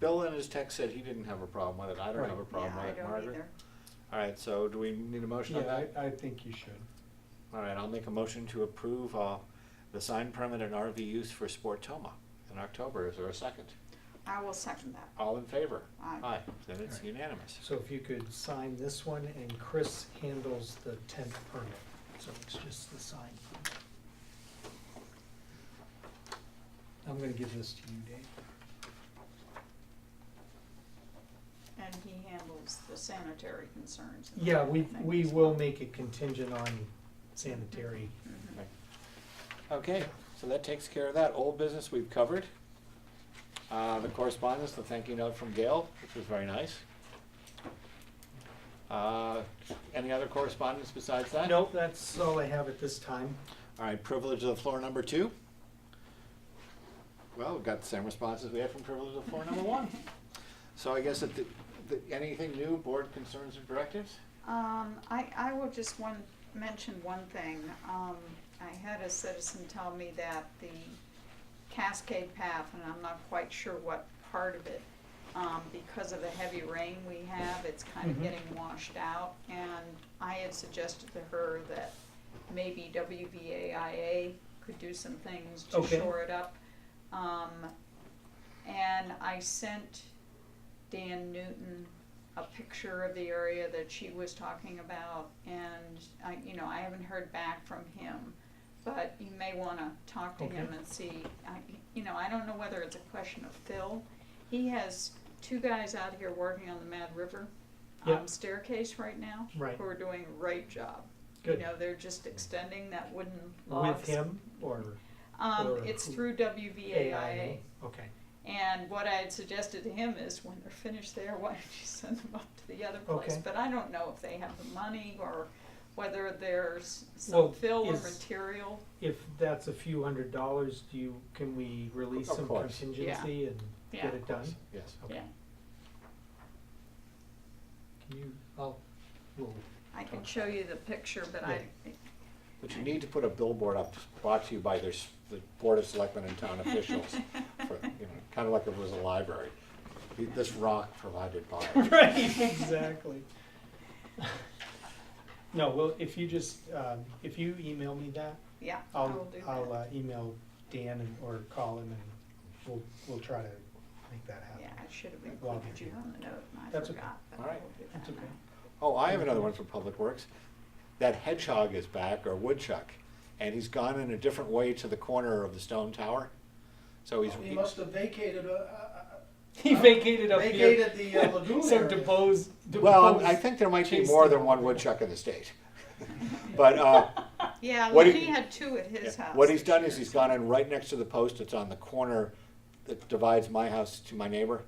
Bill in his text said he didn't have a problem with it, I don't Right. have a problem Yeah, I with it, don't Margaret. either. All right, so do we need a motion on Yeah, that? I, I think you should. All right, I'll make a motion to approve, uh, the sign permit and RV use for Sportoma in October, is there a second? I will second that. All in favor? Aye. then it's All right. unanimous. So if you could sign this one, and Chris handles the tenth permit, so it's just the sign. I'm gonna give this to you, Dave. And he handles the sanitary concerns. and Yeah, we, everything we as will well. make it contingent on sanitary. Mhm. Okay, so that takes care of that, old business we've covered. Uh, the correspondence, the thank you note from Gail, which was very nice. Uh, any other correspondence besides that? No, that's all I have at this time. All right, privilege of the floor number two. Well, we've got the same responses we had from privilege of the floor number one. So I guess that, the- the- anything new, board concerns or directives? Um, I, I will just one, mention one thing. Um, I had a citizen tell me that the Cascade Path, and I'm not quite sure what part of it, um, because of the heavy rain we have, it's kind of Mhm. getting washed out. And I had suggested to her that maybe WVAIA could do some things to Okay. shore it up. Um, and I sent Dan Newton a picture of the area that she was talking about, and I, you know, I haven't heard back from him. But you may wanna talk to him Okay. and see, I, you know, I don't know whether it's a question of Phil. He has two guys out here working on the Mad River Yeah. um, staircase right now. Right. Who are doing a great job. Good. You know, they're just extending that wooden With logs. him or Um, or it's who- through WVAIA. AIA? Okay, And what I had suggested to him is when they're finished there, why don't you send them up to the other place? Okay. But I don't know if they have the money or whether there's Well, some fill or is- material. if that's a few hundred dollars, do you, can we release Of some course. contingency and Yeah. get it done? Yes. Okay. Yeah, Can you, oh, I'll, we'll I can show you the picture, but I, But you need to put a billboard up brought to you by this, the Board of Selectmen and town officials, for, you know, kind of like it was a library. This rock provided by. Right, exactly. No, well, if you just, um, if you email me that, yeah, I will I'll, do I'll that. uh, email Dan and, or call him and we'll, we'll try to make that Yeah, happen. I should have Well, included you on the note and I That's okay. forgot. but All I right. will do That's that okay. now. Oh, I have another one from Public Works. That hedgehog is back, or woodchuck, and he's gone in a different way to the corner of the stone tower. So he's, He must have vacated, uh, uh, He vacated up here, vacated the uh, lagoon so area. depose, well, depose. I think there might be Chased more him. than one woodchuck in the state. But, uh, Yeah, What he- Lenny had two at his Yeah. house. What he's this done year, is he's so- gone in right next to the post that's on the corner that divides my house to my neighbor.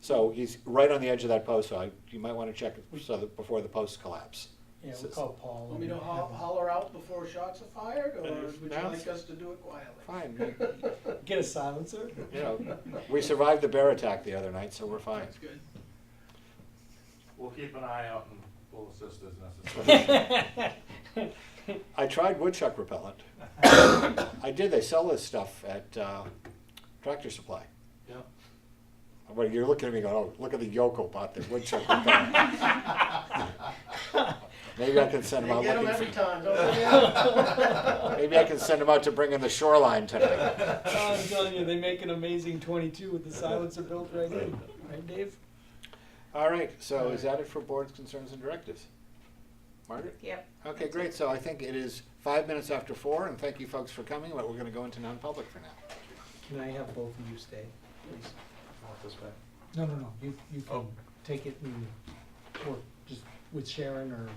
So he's right on the edge of that post, so I, you might wanna check it so that, before the posts collapse. Yeah, we'll call Paul. Want me to and ho- have him- holler out before shots are fired, or Uh, would you no. like us to do it quietly? Fine, we- Get a silencer? you know, we survived the bear attack the other night, so we're fine. That's good. We'll keep an eye out and we'll assist as necessary. I tried woodchuck repellent. I did, they sell this stuff at, uh, Tractor Supply. Yeah. Well, you're looking at me going, oh, look at the yokel bought the woodchuck repellent. Maybe I can send him They out get looking them for. every time, don't they? Maybe I can send them out to bring in the shoreline tonight. Oh, I'm telling you, they make an amazing twenty-two with the silencer built right in, right, Dave? All right, so is that it for boards, concerns, and directives? Margaret? Yep. Okay, great, so I think it is five minutes after four, and thank you folks for coming, but we're gonna go into non-public for now. Can I have both of you stay, please? This way. No, no, no, you, you Oh. can take it and, or just with Sharon or